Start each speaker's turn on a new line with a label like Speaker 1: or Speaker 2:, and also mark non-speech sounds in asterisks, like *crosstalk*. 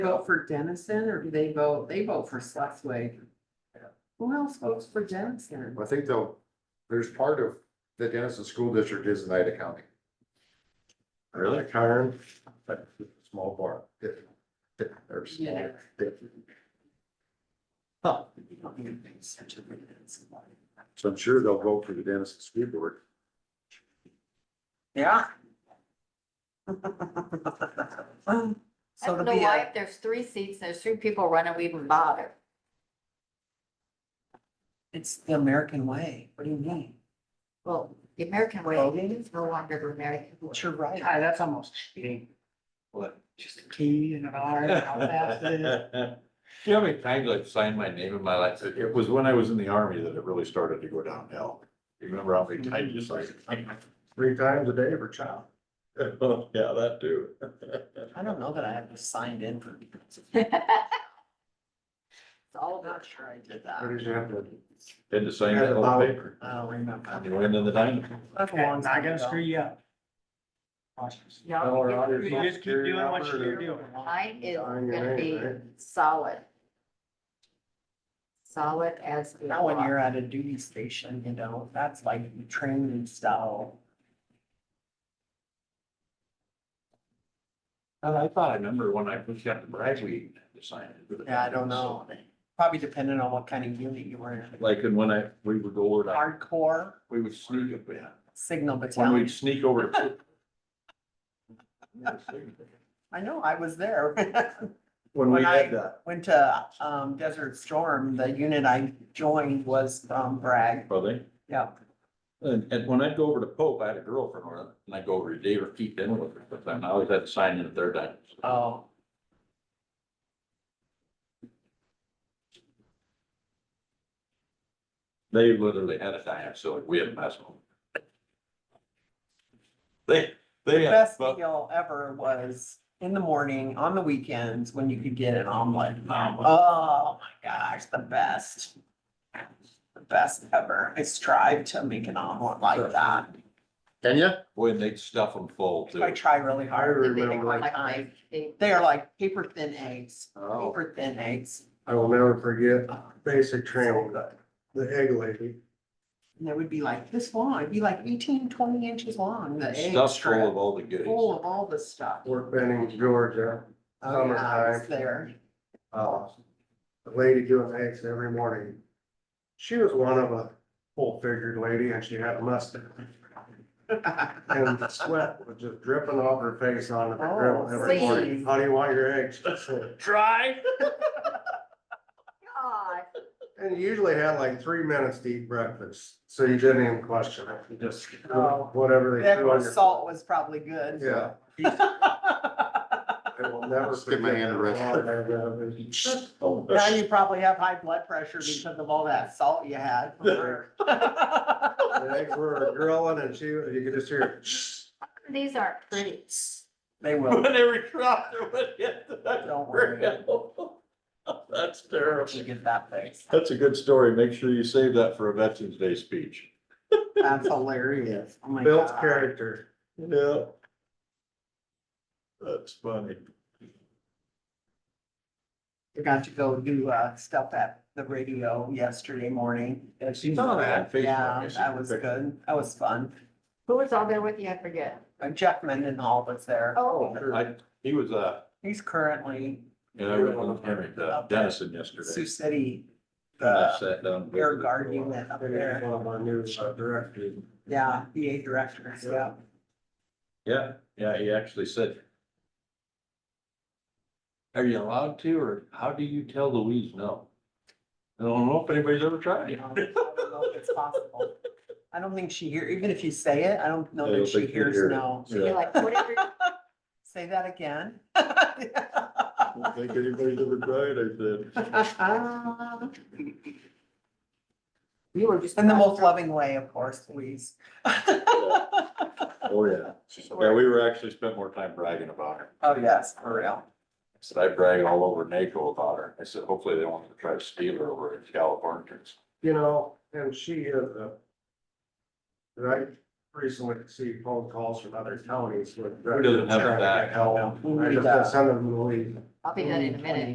Speaker 1: vote for Dennison or do they vote, they vote for Sleswig? Who else votes for Dennison?
Speaker 2: I think though, there's part of the Dennison School District is in Ida County.
Speaker 3: Really, Karen? But Small bar.
Speaker 2: It- it- There's.
Speaker 1: Yeah.
Speaker 3: Huh. So I'm sure they'll vote for the Dennison School Board.
Speaker 4: *laughs*
Speaker 1: Yeah.
Speaker 4: I
Speaker 1: So
Speaker 4: don't
Speaker 1: to
Speaker 4: know
Speaker 1: be
Speaker 4: why,
Speaker 1: a,
Speaker 4: if there's three seats, there's three people running, we even bother.
Speaker 1: it's the American way. What do you mean?
Speaker 4: Well, the American way is no longer the American way.
Speaker 1: But you're right. Ah, that's almost cheating. What? Just a key and an R and how fast it is.
Speaker 3: Do you know how many times I've signed my name in my life? It it was when I was in the army that it really started to go downhill. You remember how many times you signed? it? Three times a day for child. Oh, yeah, that too.
Speaker 1: *laughs* I don't know that I ever signed in for.
Speaker 4: It's all
Speaker 1: I'm
Speaker 4: about,
Speaker 1: not sure I did
Speaker 2: Where
Speaker 1: that.
Speaker 2: did you have to?
Speaker 3: Had to sign that whole paper.
Speaker 1: I don't remember.
Speaker 3: You went in the dynamo.
Speaker 1: Okay.
Speaker 5: I'm not gonna screw you up. Cautious.
Speaker 4: no,
Speaker 5: You just keep doing what you're doing.
Speaker 4: mine is
Speaker 2: Sign your
Speaker 4: gonna be
Speaker 2: name,
Speaker 4: solid. Solid as. a
Speaker 1: Now when
Speaker 4: rock.
Speaker 1: you're at a duty station, you know, that's like training style.
Speaker 3: And I thought, I remember when I first got to Bragg, we signed it.
Speaker 1: Yeah, I don't know. Probably depending on what kind of unit you were in.
Speaker 3: Like, and when I, we would go over to,
Speaker 1: Hardcore
Speaker 3: we would sneak up, yeah.
Speaker 1: signal
Speaker 3: When
Speaker 1: battalion.
Speaker 3: we'd sneak over. to-
Speaker 1: *laughs*
Speaker 3: *laughs*
Speaker 1: I know, I was there.
Speaker 3: *laughs* When
Speaker 1: When
Speaker 3: we
Speaker 1: I-
Speaker 3: had that,
Speaker 1: Went to um Desert Storm. The unit I joined was from Bragg.
Speaker 3: probably.
Speaker 1: Yeah.
Speaker 3: And, and when I'd go over to Pope, I had a girlfriend, or, and I'd go over to Dave or Keith in with her, but I always had to sign in at their time.
Speaker 1: Oh.
Speaker 3: They literally had a time, so we had a mess. hall. They, they, had-
Speaker 1: Best
Speaker 3: but
Speaker 1: meal ever was in the morning, on the weekends, when you could get an omelet.
Speaker 3: Omelet.
Speaker 1: Oh my gosh, the best. The best ever. I strive to make an omelet like that.
Speaker 2: Can you?
Speaker 3: boy, they'd stuff them full too.
Speaker 1: I try really hard.
Speaker 2: I
Speaker 1: They take my
Speaker 4: Like
Speaker 1: time.
Speaker 4: my- they-
Speaker 1: They are like paper thin eggs,
Speaker 2: Oh,
Speaker 1: paper thin eggs.
Speaker 6: I will never forget
Speaker 1: Oh,
Speaker 6: basic
Speaker 1: So
Speaker 6: training,
Speaker 1: good.
Speaker 6: the egg lady.
Speaker 1: And they would be like this long, it'd be like 18, 20 inches long, the egg
Speaker 3: Stuff full
Speaker 1: strip,
Speaker 3: of all the goodies.
Speaker 1: full of all this stuff.
Speaker 6: Fort Benning, Georgia.
Speaker 1: Oh, yeah, I was
Speaker 6: Summertime.
Speaker 1: there.
Speaker 6: Uh, The lady doing eggs every morning. She was one of a full figured lady and she had a mustache and the sweat was just dripping off her face on the grill every
Speaker 4: Oh,
Speaker 6: morning.
Speaker 4: please.
Speaker 6: How do you want your eggs?
Speaker 3: *laughs* Try.
Speaker 4: God,
Speaker 6: And you usually had like three minutes to eat breakfast, so you didn't even question it. You just, whatever
Speaker 1: Oh.
Speaker 6: they
Speaker 1: That
Speaker 6: threw on
Speaker 1: was
Speaker 6: your.
Speaker 1: salt was probably good.
Speaker 6: Yeah.
Speaker 1: *laughs*
Speaker 6: I will never.
Speaker 2: Just give my hand a rest.
Speaker 6: rest.
Speaker 1: Now you probably have high blood pressure because of all that salt you had. from her.
Speaker 6: The eggs were grilling and she, you could just
Speaker 1: Oh
Speaker 6: hear.
Speaker 4: these aren't pretty.
Speaker 1: They will,
Speaker 3: Whenever you out there, would hit the-
Speaker 1: Don't worry.
Speaker 3: *laughs* That's
Speaker 1: you
Speaker 3: terrible.
Speaker 1: get that fixed.
Speaker 3: That's a good story. Make sure you save that for a Veterans Day speech.
Speaker 1: That's hilarious. Oh my
Speaker 6: Built
Speaker 1: God.
Speaker 6: character.
Speaker 3: Yeah. That's funny.
Speaker 1: I got to go do uh stuff at the radio yesterday morning.
Speaker 3: I've seen
Speaker 1: Oh,
Speaker 3: that.
Speaker 1: Yeah, that was good. That was fun.
Speaker 4: Who was all there with you? I forget.
Speaker 1: Uh, Jeff Mendenhall was there.
Speaker 4: Oh,
Speaker 3: I, he was, uh,
Speaker 1: He's currently
Speaker 3: you know, I went with uh, Dennison yesterday.
Speaker 1: Sioux City,
Speaker 3: I
Speaker 1: the
Speaker 3: sat down.
Speaker 1: air guard unit up there.
Speaker 6: One of our new uh, directors.
Speaker 1: Yeah, BA director, yeah.
Speaker 3: Yeah, yeah, he actually said. Are you allowed to, or how do you tell Louise no? I don't know if anybody's ever
Speaker 1: I
Speaker 3: tried.
Speaker 1: don't know if *laughs* it's possible. I don't think she hear, even if you say it, I don't
Speaker 3: I
Speaker 1: know
Speaker 3: don't
Speaker 1: that she
Speaker 3: think she'd
Speaker 1: hears
Speaker 3: hear it.
Speaker 1: no.
Speaker 4: she'd be
Speaker 3: Yeah.
Speaker 4: like, whatever. *laughs*
Speaker 1: Say that again. *laughs*
Speaker 3: I don't think anybody's ever tried, I said.
Speaker 4: Um, You were just.
Speaker 1: In the most loving way, of course, please.
Speaker 3: Oh,
Speaker 1: *laughs*
Speaker 3: yeah.
Speaker 4: She should
Speaker 3: Yeah,
Speaker 4: wear-
Speaker 3: we were actually spent more time bragging about her.
Speaker 1: Oh, yes, for real.
Speaker 3: Said I brag all over NACO about her. I said, hopefully they won't try to steal her over in California.
Speaker 6: You know, and she is a. and I recently received phone calls from other counties with.
Speaker 3: Who doesn't have
Speaker 6: trying to
Speaker 3: that?
Speaker 6: get help.
Speaker 1: Who
Speaker 6: I
Speaker 1: needs
Speaker 6: just
Speaker 1: that?
Speaker 6: send them to leave.
Speaker 4: I'll be done in a minute.